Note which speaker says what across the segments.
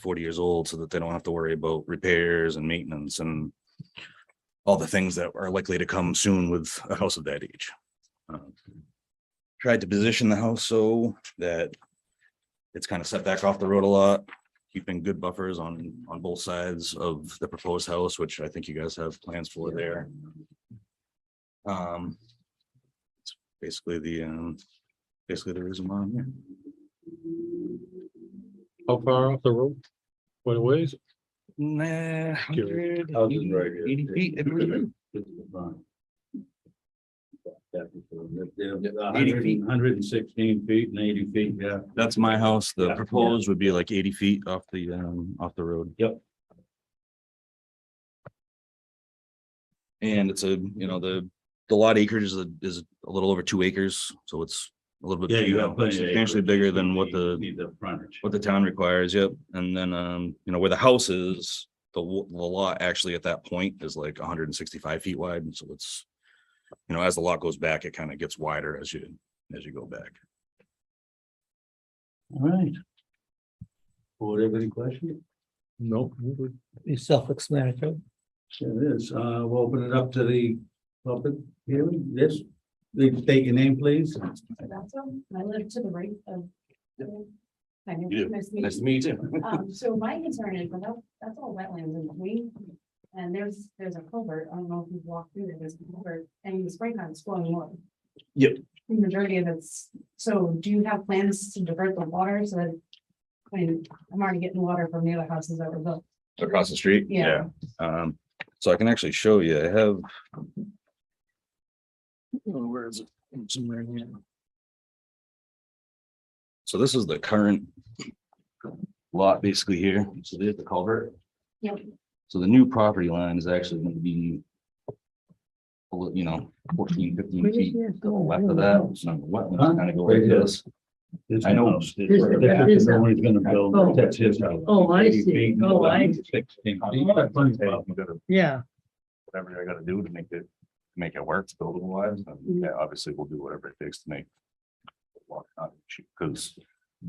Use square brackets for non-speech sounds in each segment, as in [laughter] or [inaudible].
Speaker 1: forty years old so that they don't have to worry about repairs and maintenance and all the things that are likely to come soon with a house of that age. Um, Tried to position the house so that it's kind of set back off the road a lot, keeping good buffers on, on both sides of the proposed house, which I think you guys have plans for there. Um, it's basically the, um, basically the reason why I'm here.
Speaker 2: How far off the road? What a ways?
Speaker 1: Nah,
Speaker 2: Curious.
Speaker 1: 100,
Speaker 3: Houses
Speaker 1: 80,
Speaker 3: right here.
Speaker 1: 80 feet, it was-
Speaker 3: Hundred
Speaker 1: feet.
Speaker 3: and- 116 feet and eighty feet, yeah.
Speaker 1: That's my house. The
Speaker 3: Yeah.
Speaker 1: proposed would be like eighty feet off the, um, off the road.
Speaker 3: Yep.
Speaker 1: And it's a, you know, the, the lot acreage is, a- is a little over two acres, so it's a little bit.
Speaker 3: Yeah, you
Speaker 1: know,
Speaker 3: have plenty. of
Speaker 1: Substantially
Speaker 3: acreage.
Speaker 1: bigger than what
Speaker 3: You
Speaker 1: the,
Speaker 3: Need the frontage.
Speaker 1: what the town requires, yep. And then, um, you know, where the house is, the, wa- the lot actually at that point is like hundred and sixty-five feet wide, and so it's, you know, as the lot goes back, it kind of gets wider as you, as you go back.
Speaker 3: All right. Board, have any questions?
Speaker 2: No.
Speaker 4: It's self-explanatory.
Speaker 3: It is. Uh, we'll open it up to the public hearing. Yes, please state your name, please.
Speaker 5: Tabasco. I live to the right of. Hi,
Speaker 1: do.
Speaker 5: nice to meet you.
Speaker 1: meet you. [laughs]
Speaker 5: Um, so my concern is, well, that- that's all wetlands in between. And there's, there's a culvert, I don't know if you've walked through there, there's a culvert, and in the springtime it's flowing water.
Speaker 1: Yep.
Speaker 5: The Majority of it's, so do you have plans to divert the water so that? I mean, I'm already getting water from the other houses that were built.
Speaker 1: Across the street?
Speaker 5: Yeah.
Speaker 1: Um, so I can actually show you, I have,
Speaker 2: Where is it? Somewhere in here.
Speaker 1: so this is the current lot basically here, so there's the culvert.
Speaker 5: Yep.
Speaker 1: So the new property line is actually gonna be a little, you know, 14, 15 feet left of that, so wetlands kind of go like this. I know.
Speaker 3: This is the one he's gonna build. That's his house.
Speaker 4: Oh, I
Speaker 3: 80
Speaker 4: see.
Speaker 3: feet and
Speaker 4: Oh, I-
Speaker 3: 116 feet. You got plenty of room.
Speaker 4: Yeah,
Speaker 1: Whatever I gotta do to make it, make it work, buildable wise, and yeah, obviously we'll do whatever it takes to make. Because, I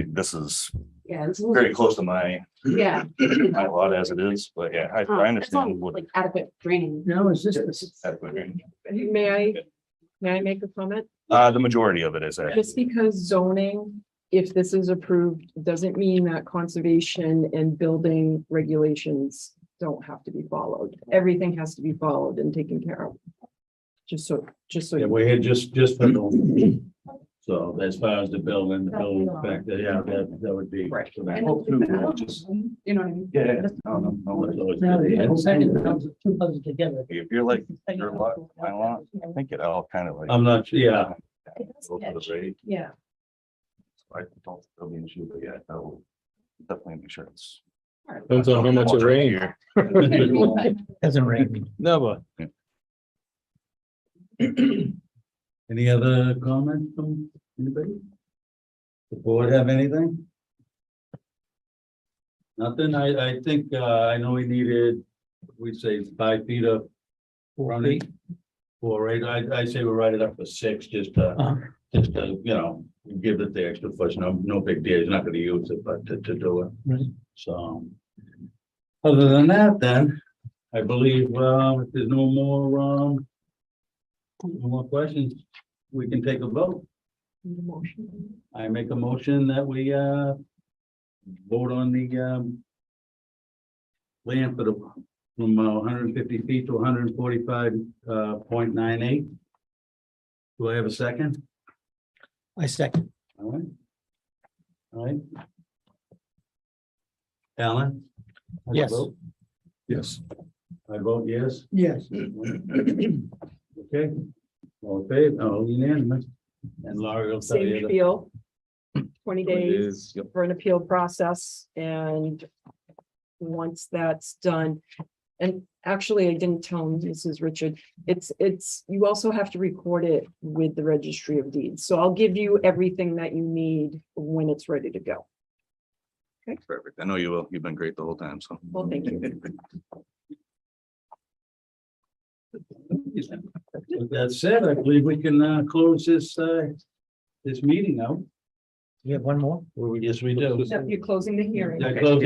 Speaker 1: mean, this is
Speaker 5: Yeah.
Speaker 1: very close to my
Speaker 5: Yeah. Uh,
Speaker 1: my lot as it is, but yeah, I, I understand what.
Speaker 5: Like adequate draining.
Speaker 4: now is this, the-
Speaker 6: May I, may I make a comment?
Speaker 1: Uh, the majority of it is, uh,
Speaker 6: Just because zoning, if this is approved, doesn't mean that conservation and building regulations don't have to be followed. Everything has to be followed and taken care of. Just so, just so.
Speaker 3: Yeah,
Speaker 6: you
Speaker 3: we're here just, just for the.
Speaker 4: [clears throat]
Speaker 3: So as far as the building, the building fact, that, yeah, that, that would be.
Speaker 6: Right.
Speaker 3: So that-
Speaker 5: And it's-
Speaker 3: hopefully we'll just-
Speaker 5: You know what I mean?
Speaker 1: yeah, yeah, no, no, no,
Speaker 3: it's
Speaker 1: like,
Speaker 3: always
Speaker 4: now
Speaker 3: good.
Speaker 4: the second
Speaker 3: Yeah.
Speaker 4: comes, two comes together.
Speaker 1: if you're like, your lot, my lot, I think it all kind of like.
Speaker 3: I'm not, sure. yeah,
Speaker 5: It does
Speaker 1: Go for the
Speaker 5: catch.
Speaker 1: rate,
Speaker 5: Yeah.
Speaker 1: so I don't, think there'll be an issue, but yeah, that will definitely make sure it's.
Speaker 2: Depends on how much it rains.
Speaker 4: Doesn't rain.
Speaker 2: Never.
Speaker 3: [laughs] any other comments from anybody? The board have anything? Nothing, I, I think, uh, I know we needed, we say five feet of running. Four, eight, I, I say we write it up for six, just, uh,
Speaker 4: Uh,
Speaker 3: just to, you know, give it the extra push, no, no big deal, he's not gonna use it, but to, to do it.
Speaker 4: Right.
Speaker 3: So. Other than that, then, I believe, um, if there's no more, um. No more questions, we can take a vote. I make a motion that we, uh. Vote on the, um. Land for the, from uh, hundred and fifty feet to hundred and forty-five, uh, point nine eight. Do I have a second?
Speaker 4: I second.
Speaker 3: All right. All right. Alan? how do you
Speaker 4: Yes.
Speaker 3: vote?
Speaker 1: Yes.
Speaker 3: I vote yes.
Speaker 4: Yes.
Speaker 3: Okay. All in favor, all unanimous. And Laurie will tell
Speaker 6: Same
Speaker 3: you. the-
Speaker 6: appeal. Twenty days
Speaker 1: Yep.
Speaker 6: for an appeal process and once that's done, and actually, I didn't tell Mrs. Richard, it's, it's, you also have to record it with the registry of deeds. So I'll give you everything that you need when it's ready to go.
Speaker 1: Perfect. I know you will. You've been great the whole time, so.
Speaker 6: Well, thank you.
Speaker 3: With that said, I believe we can uh, close this, uh, this meeting now.
Speaker 4: You have one more?
Speaker 3: Yes, we do.
Speaker 6: You're closing the hearing.
Speaker 3: Yeah, close